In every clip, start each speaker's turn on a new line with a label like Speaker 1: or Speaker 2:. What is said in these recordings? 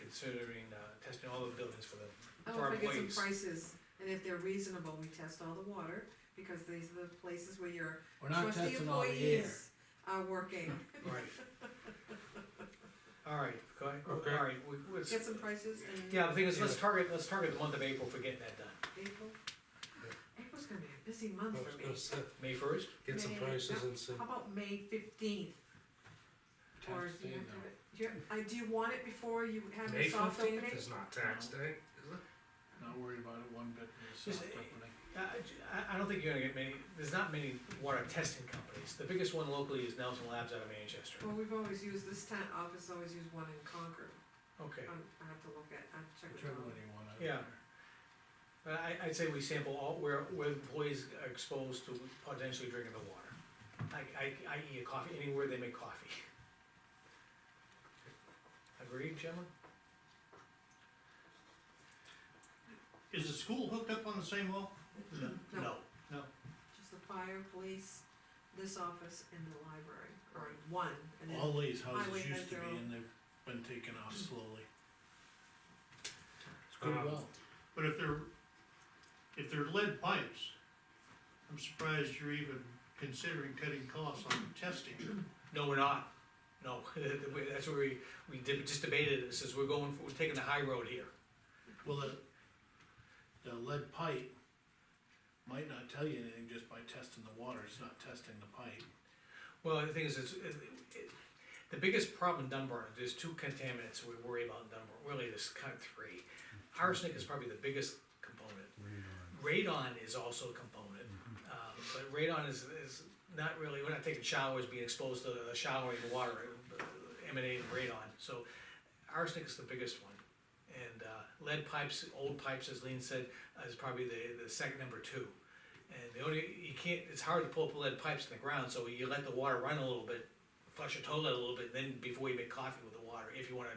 Speaker 1: considering, uh, testing all the buildings for them.
Speaker 2: Oh, I
Speaker 1: for our
Speaker 2: want to get some
Speaker 1: employees.
Speaker 2: prices, and if they're reasonable, we test all the water, because these are the places where your
Speaker 3: We're not
Speaker 2: trusty
Speaker 3: testing all the air.
Speaker 2: employees are working.
Speaker 1: Right. All right, go ahead,
Speaker 4: Okay.
Speaker 1: all right, we, we,
Speaker 2: Get some prices in
Speaker 1: yeah, the thing is, let's
Speaker 4: Yeah.
Speaker 1: target, let's target the month of April for getting that done,
Speaker 2: April.
Speaker 4: Yeah.
Speaker 2: April's gonna be a busy
Speaker 4: I
Speaker 2: month
Speaker 4: was
Speaker 2: for
Speaker 4: gonna
Speaker 2: me.
Speaker 4: say,
Speaker 1: May first,
Speaker 4: Get some
Speaker 2: May-
Speaker 4: prices and see.
Speaker 2: How about May fifteenth? Or
Speaker 4: Tax
Speaker 2: do you
Speaker 4: day,
Speaker 2: have to,
Speaker 4: no.
Speaker 2: do you, I, do you want it before you have
Speaker 4: May
Speaker 2: your soft opening?
Speaker 4: fifteenth is not tax day, is it?
Speaker 3: Not worried about it one bit. it's
Speaker 1: Just-
Speaker 3: not happening.
Speaker 1: I, Uh, I- I don't think you're gonna get many, there's not many water testing companies, the biggest one locally is Nelson Labs out of Manchester.
Speaker 2: Well, we've always used, this town office always used one in Concord,
Speaker 1: Okay,
Speaker 2: I'm, I have to look at, I have to check it
Speaker 3: Whichever
Speaker 2: out.
Speaker 3: one you want. I don't
Speaker 1: Yeah.
Speaker 3: care.
Speaker 1: but Uh, I, I'd say we sample all, where, where employees are exposed to potentially drinking the water. I, I, I eat a coffee, anywhere they make coffee. Agreed, gentlemen?
Speaker 5: Is the school hooked up on the same wall?
Speaker 2: No.
Speaker 1: No,
Speaker 2: Just the fire, police, this office, and the library, or one, and then,
Speaker 3: All these houses
Speaker 2: Highway
Speaker 3: used to be
Speaker 2: Metro.
Speaker 3: and they've been taken off slowly. It's
Speaker 4: Um,
Speaker 3: good well.
Speaker 5: But if they're, if they're lead pipes, I'm surprised you're even considering cutting costs on the testing.
Speaker 1: no, we're not, no, that's where we, we did, just debated this, is we're going, for- we're taking the high road here.
Speaker 3: Well, the, the lead pipe might not tell you anything just by testing the water, it's not testing the pipe.
Speaker 1: Well, the thing is, it's, it, it- the biggest problem in Dunbar, there's two contaminants we worry about in Dunbar, really, there's kind of three. Arsenic is probably the biggest component. Radon is also a component, um, but radon is, is not really, we're not taking showers, being exposed to the showering water uh, emanating radon, so arsenic is the biggest one. And, uh, lead pipes, old pipes, as Lean said, uh, is probably the, the second number two. And the only, you can't, it's hard to pull up lead pipes in the ground, so you let the water run a little bit, flush your toilet a little bit, then before you make coffee with the water, if you wanna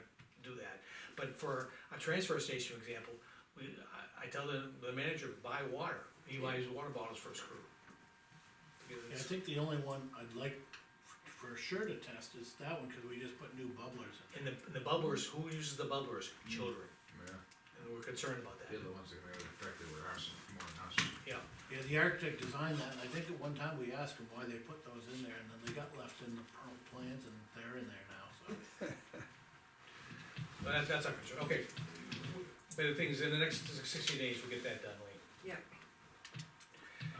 Speaker 1: do that. But for a transfer station example, we, I, I tell the, the manager, buy water, he buys water bottles for his crew. Because
Speaker 3: Yeah, I
Speaker 1: it's-
Speaker 3: think the only one I'd like f- for sure to test is that one, cause we just put new bubblers in.
Speaker 1: And the, and the bubblers, who uses the bubblers? Children,
Speaker 4: Yeah,
Speaker 1: and we're concerned about
Speaker 4: they're
Speaker 1: that,
Speaker 4: the ones that are affected with arson more than us.
Speaker 1: yeah.
Speaker 3: Yeah, the architect designed that, and I think at one time we asked him why they put those in there, and then they got left in the pro- plans, and they're in there now, so.
Speaker 1: But that, that's our concern, okay. But the thing is, in the next sixty days, we'll get that done, Lee.
Speaker 2: yeah,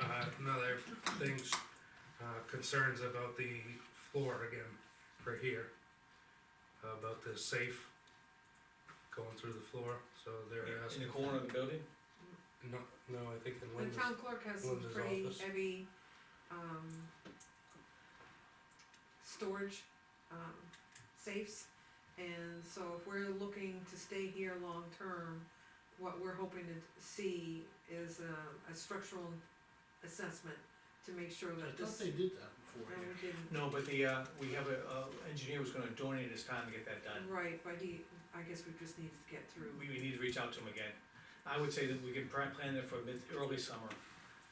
Speaker 4: Uh, another things, uh, concerns about the floor again, for here. About the safe going through the floor, so they're
Speaker 1: In
Speaker 4: asking.
Speaker 1: the corner of the building?
Speaker 4: No, no, I think in
Speaker 2: the
Speaker 4: Linda's.
Speaker 2: town clerk has some
Speaker 4: Linda's
Speaker 2: pretty
Speaker 4: office.
Speaker 2: heavy, um, storage, um, safes, and so if we're looking to stay here long-term, what we're hoping to see is a, a structural assessment to make sure
Speaker 3: I
Speaker 2: that
Speaker 3: thought
Speaker 2: this,
Speaker 3: they did that before
Speaker 2: that
Speaker 3: here.
Speaker 2: we didn't
Speaker 1: No, but the, uh, we have a, uh, engineer who's gonna donate his time to get that done.
Speaker 2: Right, but he, I guess we just need to get through,
Speaker 1: We, we need to reach out to him again. I would say that we can pri- plan it for mid, early summer.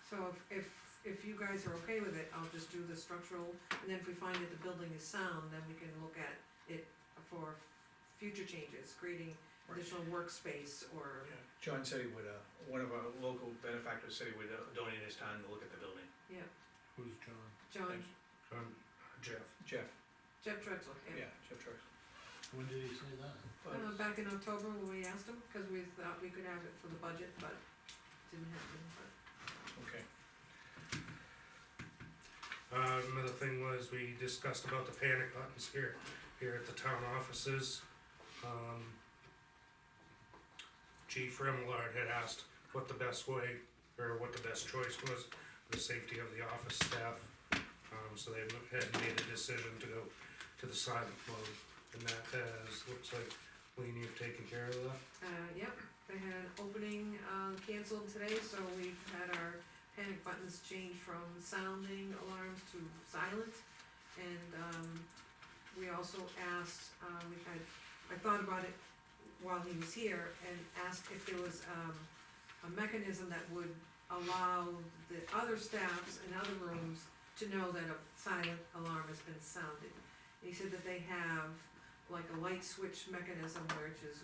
Speaker 2: so if, if, if you guys are okay with it, I'll just do the structural, and then if we find that the building is sound, then we can look at it for future changes, creating
Speaker 1: Right.
Speaker 2: additional workspace or,
Speaker 1: John said he would, uh, one of our local benefactors said he would uh, donate his time to look at the building.
Speaker 3: Who's John?
Speaker 2: John,
Speaker 4: Um, Jeff.
Speaker 1: Jeff,
Speaker 2: Jeff Drexel, yeah.
Speaker 1: yeah, Jeff Trucks.
Speaker 3: When did he say that?
Speaker 2: Uh, back in October when we asked him, cause we thought we could have it for the budget, but didn't happen, but.
Speaker 1: Okay,
Speaker 4: Uh, another thing was we discussed about the panic buttons here, here at the town offices. Um, Chief Remillard had asked what the best way, or what the best choice was, for the safety of the office staff. Um, so they had made a decision to go to the silent mode, and that has, looks like, Lean, you've taken care of that.
Speaker 2: Uh, yep, they had an opening, uh, canceled today, so we've had our panic buttons changed from sounding alarms to silent. And, um, we also asked, uh, we had, I thought about it while he was here and asked if there was, um, a mechanism that would allow the other staffs in other rooms to know that a silent alarm has been sounded. He said that they have like a light switch mechanism, which is